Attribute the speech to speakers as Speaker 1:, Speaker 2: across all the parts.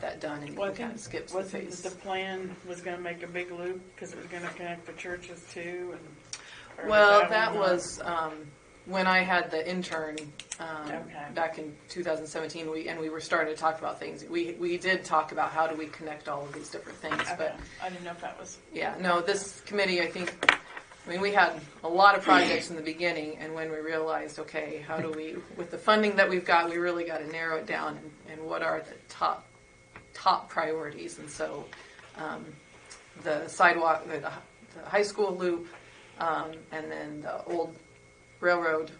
Speaker 1: that done and
Speaker 2: Well, I
Speaker 1: we kind
Speaker 2: think
Speaker 1: of skips the
Speaker 2: wasn't the
Speaker 1: phase.
Speaker 2: plan was gonna make a big loop, cause it was gonna connect the churches too and. or
Speaker 1: Well,
Speaker 2: one
Speaker 1: that
Speaker 2: not?
Speaker 1: was um, when I had the intern um,
Speaker 2: Okay.
Speaker 1: back in 2017. We and we were starting to talk about things. We we did talk about how do we connect all of these different things,
Speaker 2: Okay,
Speaker 1: but
Speaker 2: I didn't know if that was,
Speaker 1: yeah, no, this committee, I think. I mean, we had a lot of projects in the beginning, and when we realized, okay, how do we, with the funding that we've got, we really got to narrow it down, and, and what are the top top priorities? And so, um, the sidewalk, the, the high school loop, um, and then the old railroad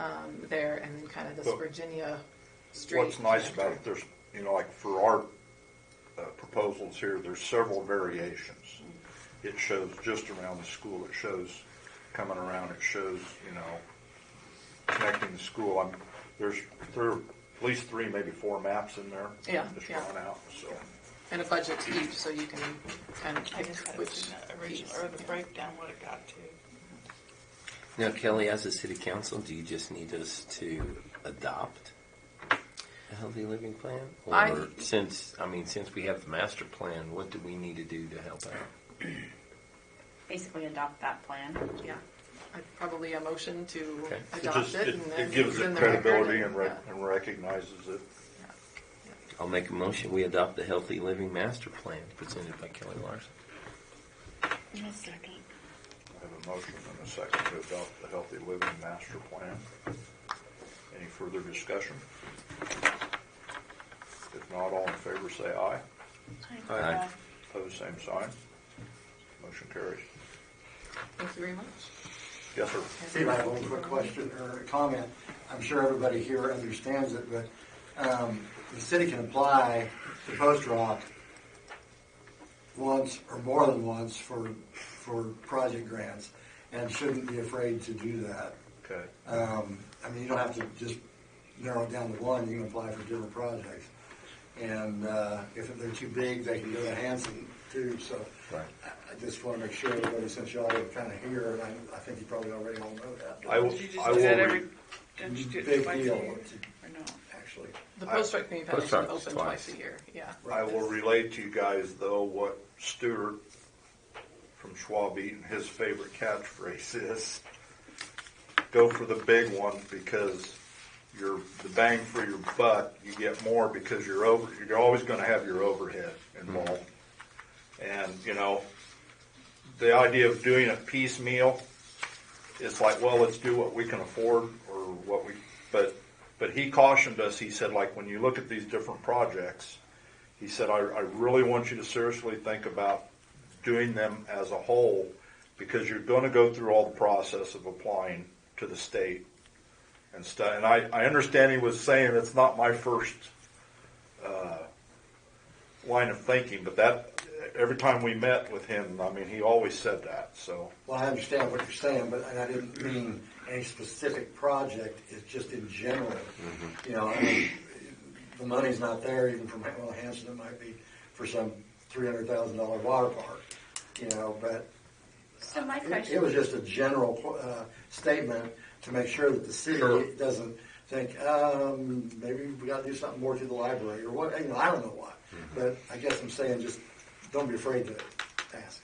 Speaker 1: um, there, and then kind of this
Speaker 3: Well,
Speaker 1: Virginia street.
Speaker 3: What's nice about
Speaker 1: connector.
Speaker 3: it, there's, you know, like for our uh, proposals here, there's several variations. It shows just around the school, it shows coming around, it shows, you know, connecting the school. I'm, there's, there are at least three, maybe four maps in there.
Speaker 1: Yeah,
Speaker 3: Just
Speaker 1: yeah.
Speaker 3: drawn out, so.
Speaker 1: and a budget to each, so you can kind of
Speaker 2: I
Speaker 1: pick
Speaker 2: just hadn't
Speaker 1: which
Speaker 2: seen that
Speaker 1: piece.
Speaker 2: original, or the breakdown, what it got to.
Speaker 4: Now, Kelly, as a city council, do you just need us to adopt a healthy living plan? Or
Speaker 1: I-
Speaker 4: since, I mean, since we have the master plan, what do we need to do to help out?
Speaker 5: basically adopt that plan.
Speaker 1: Yeah, I probably a motion to
Speaker 4: Okay.
Speaker 3: It
Speaker 1: adopt
Speaker 3: just,
Speaker 1: it.
Speaker 3: it,
Speaker 1: and then
Speaker 3: it gives
Speaker 1: put in
Speaker 3: it
Speaker 1: the record
Speaker 3: credibility and rec-
Speaker 1: yeah.
Speaker 3: and recognizes it.
Speaker 4: I'll make a motion. We adopt the healthy living master plan presented by Kelly Larson.
Speaker 2: A second.
Speaker 3: I have a motion and a second to adopt the Healthy Living Master Plan. Any further discussion? If not, all in favor say aye.
Speaker 4: Aye.
Speaker 3: Pose same sign. Motion carries.
Speaker 1: Thank you very much.
Speaker 3: Yes, sir.
Speaker 6: Steve, I have one quick question or comment. I'm sure everybody here understands it, but um, the city can apply to Post Rock once or more than once for, for project grants and shouldn't be afraid to do that.
Speaker 3: Okay.
Speaker 6: Um, I mean, you don't have to just narrow it down to one, you can apply for different projects. And uh, if they're too big, they can go to Hanson too, so.
Speaker 4: Right.
Speaker 6: I I just want to make sure everybody, since y'all are kind of here, and I- I think you probably already all know that. but
Speaker 3: I will,
Speaker 2: Did you just
Speaker 3: I
Speaker 2: do
Speaker 3: will
Speaker 2: that
Speaker 3: re-
Speaker 2: every, didn't you do it
Speaker 6: Big
Speaker 2: twice a
Speaker 6: deal.
Speaker 2: year? Or no?
Speaker 6: Actually,
Speaker 1: The
Speaker 3: I-
Speaker 1: Post Rock Community
Speaker 4: Post
Speaker 1: Foundation
Speaker 4: Rock's
Speaker 1: open twice
Speaker 4: twice.
Speaker 1: a year, yeah.
Speaker 3: I will relate to you guys though what Stuart from Schwab Eaton, his favorite catchphrase is, go for the big one because you're, the bang for your buck, you get more because you're over, you're always gonna have your overhead involved. And, you know, the idea of doing it piecemeal, it's like, well, let's do what we can afford or what we, but, but he cautioned us, he said, like, when you look at these different projects, he said, I, I really want you to seriously think about doing them as a whole because you're going to go through all the process of applying to the state and stuff. And I, I understand he was saying it's not my first uh, line of thinking, but that every time we met with him, I mean, he always said that. So,
Speaker 6: well, I understand what you're saying, but and I didn't mean any specific project, it's just in general. You know, I mean, the money's not there even for, well, Hanson, it might be for some three hundred thousand dollar water park, you know, but
Speaker 5: So my
Speaker 6: It it was
Speaker 5: question,
Speaker 6: just a general uh, statement to make sure that the city
Speaker 3: Sure.
Speaker 6: doesn't think, um, maybe we got to do something more to the library or what, you know, I don't know why. But I guess I'm saying just, don't be afraid to ask.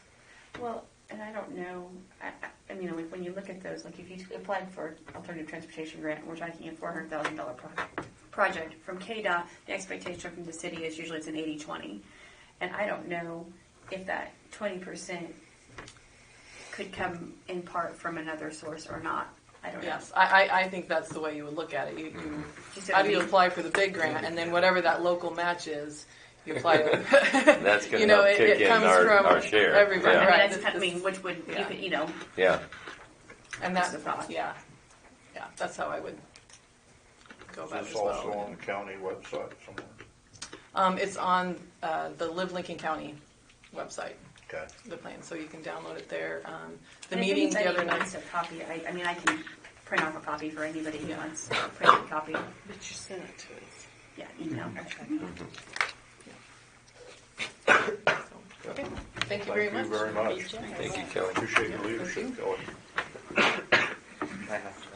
Speaker 5: well, and I don't know, I, I- I mean, like, when you look at those, like, if you applied for alternative transportation grant, and we're talking a four hundred thousand dollar project, project from KDOT, the expectation from the city is usually it's an 80-20, And I don't know if that twenty percent could come in part from another source or not, I don't know.
Speaker 1: Yes, I, I, I think that's the way you would look at it. You, you,
Speaker 5: You said
Speaker 1: how do you
Speaker 5: we-
Speaker 1: apply for the big grant, and then whatever that local match is, you apply to.
Speaker 4: That's gonna
Speaker 1: You know,
Speaker 4: help
Speaker 1: it-
Speaker 4: kick
Speaker 1: it
Speaker 4: in
Speaker 1: comes
Speaker 4: our-
Speaker 1: from
Speaker 4: our share.
Speaker 1: Everybody,
Speaker 4: Yeah.
Speaker 5: I mean,
Speaker 1: right?
Speaker 5: that's kind of, I
Speaker 1: This-
Speaker 5: mean, which would, you
Speaker 1: Yeah.
Speaker 5: could, you know,
Speaker 4: Yeah.
Speaker 1: And
Speaker 5: That's
Speaker 1: that,
Speaker 5: the thought.
Speaker 1: yeah, yeah, that's how I would go about it
Speaker 3: it's
Speaker 1: as
Speaker 3: also
Speaker 1: well.
Speaker 3: on the county website somewhere.
Speaker 1: Um, it's on, uh, the Live Lincoln County website.
Speaker 3: Okay.
Speaker 1: the plan, so you can download it there. Um, the
Speaker 5: And if
Speaker 1: meeting the
Speaker 5: anybody
Speaker 1: other
Speaker 5: wants
Speaker 1: night.
Speaker 5: a copy, I, I mean, I can print off a copy for anybody who
Speaker 1: Yeah.
Speaker 5: wants a printed copy.
Speaker 2: But you sent it to us.
Speaker 5: Yeah, email.
Speaker 1: Okay. Thank you very
Speaker 3: Thank
Speaker 1: much.
Speaker 3: you very much.
Speaker 4: Thank you, Kelly.
Speaker 3: Appreciate your leadership, Kelly.